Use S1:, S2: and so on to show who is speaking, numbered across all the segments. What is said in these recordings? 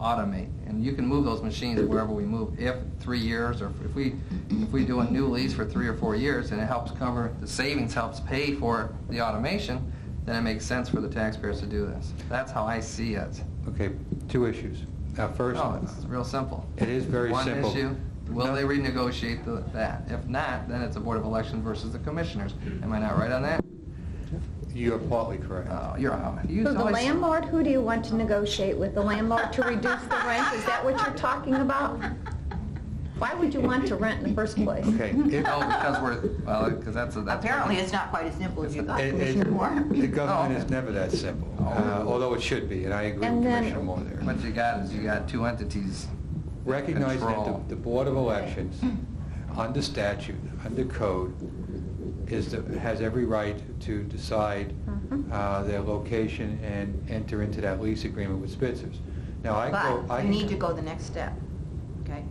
S1: automate. And you can move those machines wherever we move, if three years, or if we, if we do a new lease for three or four years, and it helps cover, the savings helps pay for the automation, then it makes sense for the taxpayers to do this. That's how I see it.
S2: Okay, two issues. Uh, First,
S1: No, it's real simple.
S2: It is very simple.
S1: One issue, will
S2: No.
S1: they renegotiate the- that? If not, then it's a Board of Election versus the Commissioners. Am I not right on that?
S2: you are partly correct.
S1: Oh, you're out. You
S3: So the
S1: always-
S3: landlord, who do you want to negotiate with? The landlord to reduce the rent? Is that what you're talking about? Why would you want to rent in the first place?
S2: Okay, if-
S1: No, Oh, because we're, well, because that's, a- that's.
S4: Apparently, it's not quite as simple as Oh, you thought,
S2: it- it-
S4: Commissioner Moore.
S2: the government is
S1: Oh.
S2: never that simple, uh, although it should be, and I agree with
S3: And then-
S2: Commissioner Moore there.
S1: What you got is you got two entities.
S2: Recognize that
S1: Control.
S2: the- the Board of Elections, under statute, under code, is, the- has every right to decide
S3: Mhm.
S4: Mm-hmm.
S2: uh, their location and enter into that lease agreement with Spitzer's. Now, I go...
S4: But
S2: I-
S4: you need to go the next step, okay?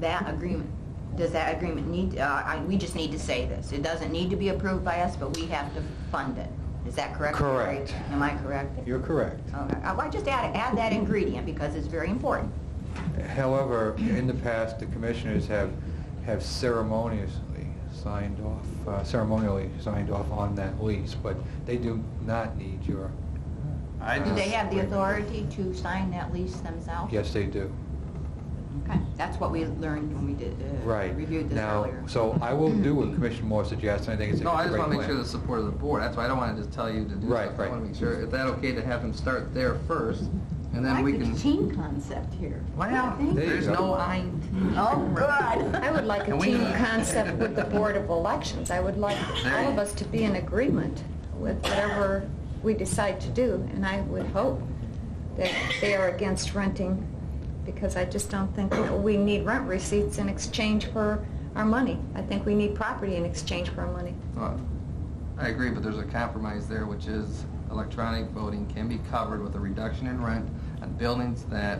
S4: That agreement, does that agreement need, uh, I- we just need to say this. It doesn't need to be approved by us, but we have to fund it. Is that correct? Lori?
S2: Correct.
S4: Am I correct?
S2: You're correct.
S4: Okay. Uh, well, I just add, add that ingredient because it's very important.
S2: However, in the past, the commissioners have, have ceremoniously signed off, uh, ceremonially signed off on that lease, but they do not need your,
S1: I
S4: Do they
S1: just-
S4: have the authority to sign that lease themselves?
S2: yes, they do.
S4: Okay, that's what we learned when we did, uh,
S2: Right.
S4: reviewed this earlier.
S2: Now, so I will do what Commissioner Moore suggests, and I think it's a
S1: No, I just
S2: great
S1: want to make sure
S2: plan.
S1: the support of the board, that's why I don't want to just tell you to do
S2: Right,
S1: stuff. I
S2: right.
S1: want to make sure, is that okay to have them start there first, and then we
S4: I like
S1: can...
S4: the team concept here.
S1: Well,
S4: Thank
S2: There you
S1: there's
S2: go.
S1: no I...
S4: Oh, good.
S3: I would like a
S1: Can we-
S3: team concept with the Board of Elections. I would like all of us to be in agreement with whatever we decide to do, and I would hope that they are against renting, because I just don't think that we need rent receipts in exchange for our money. I think we need property in exchange for our money.
S1: Well, I agree, but there's a compromise there, which is electronic voting can be covered with a reduction in rent on buildings that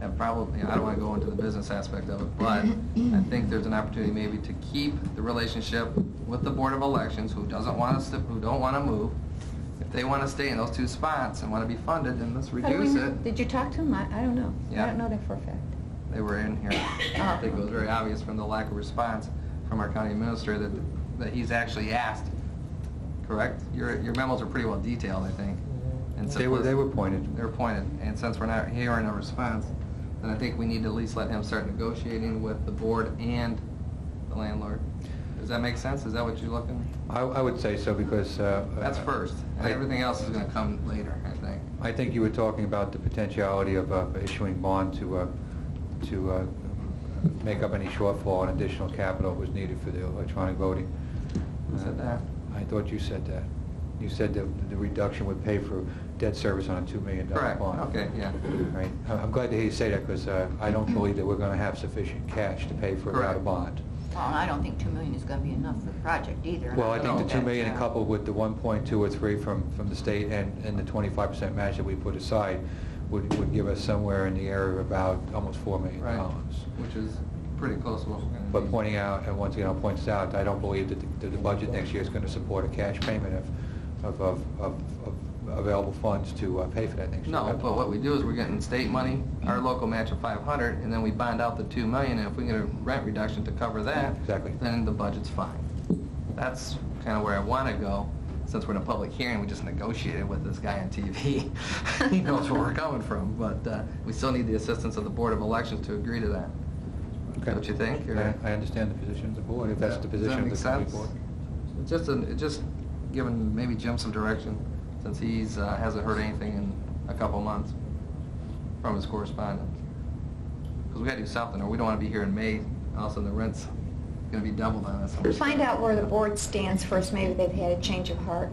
S1: have probably, I don't want to go into the business aspect of it, but I think there's an opportunity maybe to keep the relationship with the Board of Elections, who doesn't want us to, who don't want to move. If they want to stay in those two spots and want to be funded, then let's
S3: How do we
S1: reduce
S3: know?
S1: it.
S3: Did you talk to them? I I don't know. I
S1: Yeah.
S3: don't know that for a fact.
S1: They were in here. I think it was very obvious from the lack of response from our county administrator that, that he's actually asked, correct? Your, your memos are pretty well detailed, I think. And so-
S2: They were, they were pointed.
S1: They were pointed, and since we're not hearing a response, then I think we need to at least let him start negotiating with the board and the landlord. Does that make sense? Is that what you're looking?
S2: I, I would say so because... uh,
S1: That's first, and
S2: I-
S1: everything else is gonna come later, I think.
S2: I think you were talking about the potentiality of uh, issuing bond to, uh, to uh, make up any shortfall and additional capital was needed for the electronic voting. Uh,
S1: Who said that?
S2: I thought you said that. You said that the reduction would pay for debt service on a $2 million bond.
S1: Correct, okay, yeah.
S2: Right. I- I'm glad to hear you say that because I don't believe that we're going to have sufficient cash to pay for without a
S1: Correct.
S2: bond.
S4: Well, I don't think two million is gonna be enough for the project either. and
S2: Well, I think
S1: No.
S2: the
S4: that,
S2: 2 million
S4: uh,
S2: coupled with the 1.2 or 3 from, from the state and, and the 25% match that we put aside would, would give us somewhere in the area of about almost $4 million.
S1: Right, which is pretty close to what we're gonna need.
S2: But pointing out, and once again, I'll point this out, I don't believe that the, that the budget next year is going to support a cash payment of, of, of, of- of available funds to uh, pay for that next year.
S1: No, but what we do is we're getting state money, our local match of 500, and then we bond out the 2 million, and if we get a rent reduction to cover that,
S2: Exactly.
S1: then the budget's fine. That's kind of where I want to go, since we're in a public hearing, we just negotiated with this guy on TV. He knows where we're coming from, but uh, we still need the assistance of the Board of Elections to agree to that.
S2: Okay.
S1: Don't you think, or-
S2: I I understand the position of the board, if that's the
S1: Does that
S2: position of
S1: make
S2: the county
S1: sense?
S2: board.
S1: It's Just, an- it's just giving maybe Jim some direction, since he's, uh, hasn't heard anything in a couple months from his correspondence. Because we gotta do something, or we don't wanna be here in May, all of a sudden the rent's gonna be doubled on us.
S3: Find out where the board stands first. Maybe they've had a change of heart.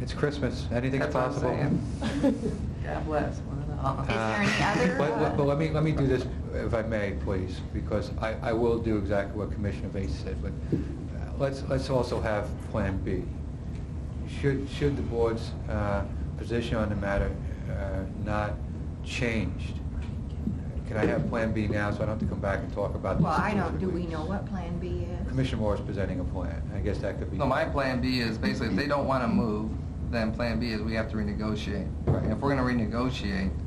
S2: It's Christmas, anything's
S1: That's what I'm
S2: possible.
S1: saying. God bless, one and all.
S4: Is there any other,
S2: But-
S4: uh,
S2: But but let me, let me do this, if I may, please, because I, I will do exactly what Commissioner Vacy said, but uh, let's, let's also have Plan B. Should, should the board's uh, position on the matter uh, not changed, can I have Plan B now, so I don't have to come back and talk about this?
S4: Well, I
S2: in two or
S4: don't,
S2: three
S4: do we
S2: weeks?
S4: know what Plan B is?
S2: Commissioner Moore is presenting a plan, I guess that could be...
S1: No, my plan B is basically, if they don't wanna move, then plan B is we have to renegotiate.
S2: Right.
S1: And if we're gonna renegotiate,